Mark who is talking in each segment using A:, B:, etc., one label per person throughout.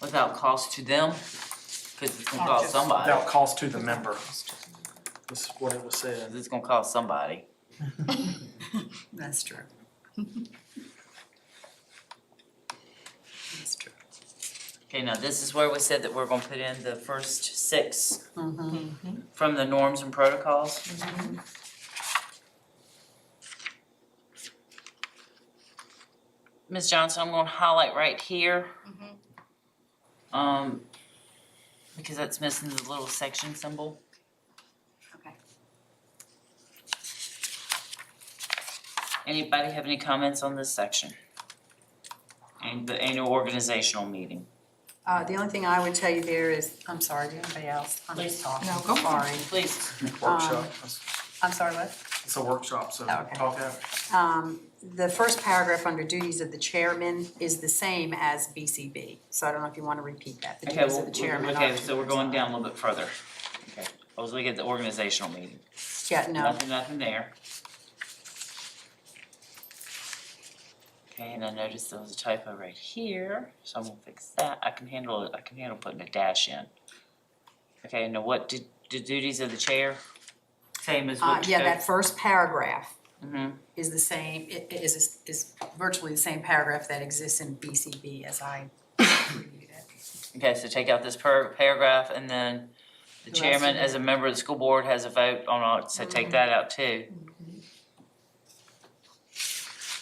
A: without cost to them? Cause it's gonna cost somebody,
B: Without cost to the member, is what it was said.
A: it's gonna cost somebody.
C: That's true. That's true.
A: Okay, now this is where we said that we're gonna put in the first six
C: Mhm.
A: from the norms and protocols. Ms. Johnson, I'm gonna highlight right here. Um, because that's missing the little section symbol.
C: Okay.
A: Anybody have any comments on this section? And the annual organizational meeting.
C: Uh, the only thing I would tell you there is, I'm sorry, did anybody else? I'm
A: Please.
C: just talking.
D: No, go for
C: Sorry.
A: Please,
B: Workshop,
C: I'm sorry, what?
B: it's a workshop, so
C: Okay.
B: talk out.
C: Um, the first paragraph under duties of the chairman is the same as BCB. So I don't know if you want to repeat that, the
A: okay,
C: duties
A: well,
C: of the chairman.
A: okay,
C: are-
A: so we're going down a little bit further. Okay, I was looking at the organizational meeting,
C: Yeah, no,
A: nothing, nothing there. Okay, and I noticed there was a typo right here, so I'm gonna fix that, I can handle it, I can handle putting a dash in. Okay, now what did, the duties of the chair? Same as
C: uh,
A: what?
C: yeah, that first paragraph
A: hmm
C: is the same, i- i- is, is virtually the same paragraph that exists in BCB as I reviewed it.
A: Okay, so take out this per paragraph and then the
C: The Mm-hmm. rest
A: chairman
C: of
A: as a member of the school board has a vote on, all- so take that out too.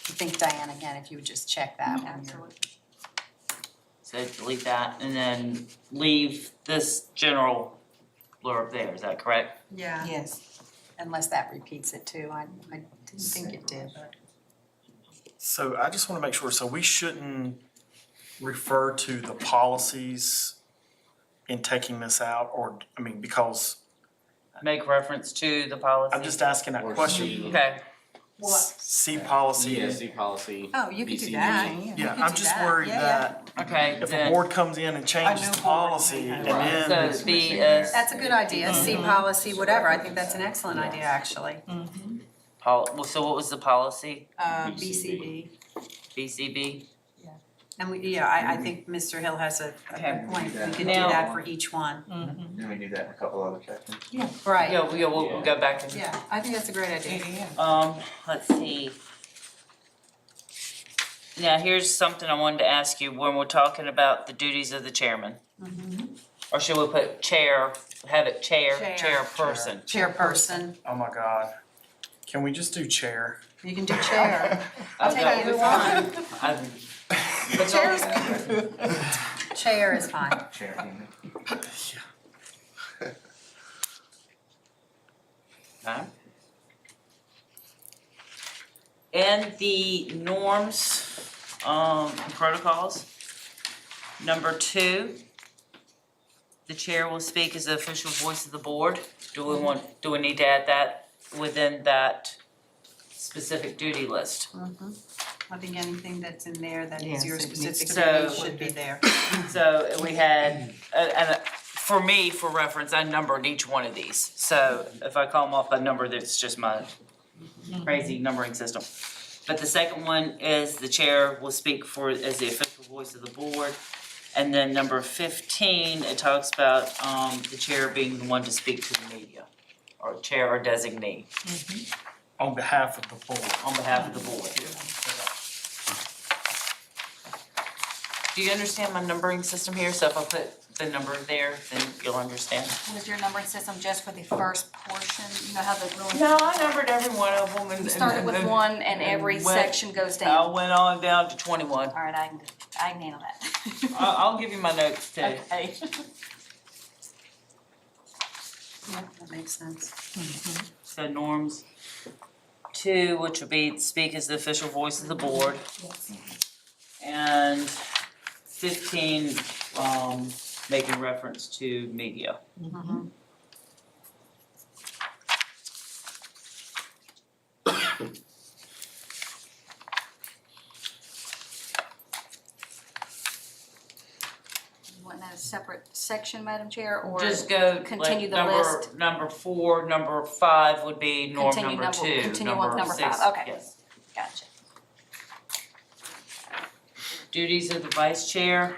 C: I think Diane, again, if you would just check that one. you're-
A: So delete that and then leave this general blurb there, is that correct?
C: Yeah,
D: Yes.
C: unless that repeats it too. I, I didn't think it did, but.
B: So I just want to make sure, so we shouldn't refer to the policies in taking this out, or, I mean, because,
A: Make reference to the policy.
B: I'm just asking that
E: Or
B: question.
E: C-
A: Okay,
B: S- C policy,
E: CSD policy.
C: Oh, you could do
E: BCD.
C: that. You
B: yeah,
C: could
B: I'm
C: do
B: just
C: that.
B: worried
C: Yeah, yeah.
B: that
A: okay,
B: if a
A: then,
B: board comes in and changes
D: new
B: the
D: board
B: policy,
D: meeting.
B: and
E: Right.
B: then,
A: so B S,
C: That's a good idea, C
B: Mm-hmm.
A: Mhm.
C: policy, whatever, I think that's an excellent idea, actually.
A: pol, well, so what was the policy,
C: Uh, BCB,
E: BCB.
A: BCB?
C: and we, yeah, I, I think Mr. Hill has a, a
A: Okay.
C: good point, we could do
A: Now-
C: that for each one.
F: Then we do that in a couple other chapters.
C: Right,
A: Yeah, we, we'll, we'll go back and,
C: yeah, I think that's a great idea.
A: um, let's see. Now, here's something I wanted to ask you, when we're talking about the duties of the chairman.
B: Mm-hmm.
A: Or should we put chair, have it chair,
C: Chair.
A: chairperson?
C: Chairperson,
B: oh my God, can we just do chair?
C: you can do chair, I'll
A: I've got-
C: take either one,
A: I've-
C: Chair is-
F: Yeah,
C: chair is fine.
F: right. Chair, yeah.
A: Okay. And the norms, um, and protocols. Number two, the chair will speak as the official voice of the board. Do we want, do we need to add that within that specific duty list?
C: I think anything that's in there that
D: Yes,
C: is your
D: it needs
C: specific
A: to
C: duty
A: be-
C: should be there.
A: So we had, uh, and uh, for me, for reference, I numbered each one of these. So if I call them off by number, that's just my crazy numbering system. But the second one is the chair will speak for, as the official voice of the board. And then number fifteen, it talks about, um, the chair being the one to speak to the media, or chair or designee
B: On behalf of the board.
A: on behalf of the board. Do you understand my numbering system here? So if I put the number there, then you'll understand.
G: Was your numbering system just for the first portion? You know how the ruling?
A: No, I numbered every one of them and.
G: You started with one and every
A: And went-
G: section goes
A: I
G: down.
A: went on down to twenty-one.
G: All right, I can, I can handle
A: I-
G: that.
A: I'll give you my notes too.
G: Okay.
C: Yeah, that makes sense.
A: So norms two, which would be speak as the official voice of the board. And fifteen, um, making reference to media.
G: You Want that a separate section, Madam Chair, or?
A: Just go like
G: continue the
A: number,
G: list.
A: number four, number five would be norm
G: Continue
A: number
G: number-
A: two,
G: continue with
A: number
G: number five,
A: six,
G: okay.
A: yes.
G: Gotcha.
A: Duties of the vice chair.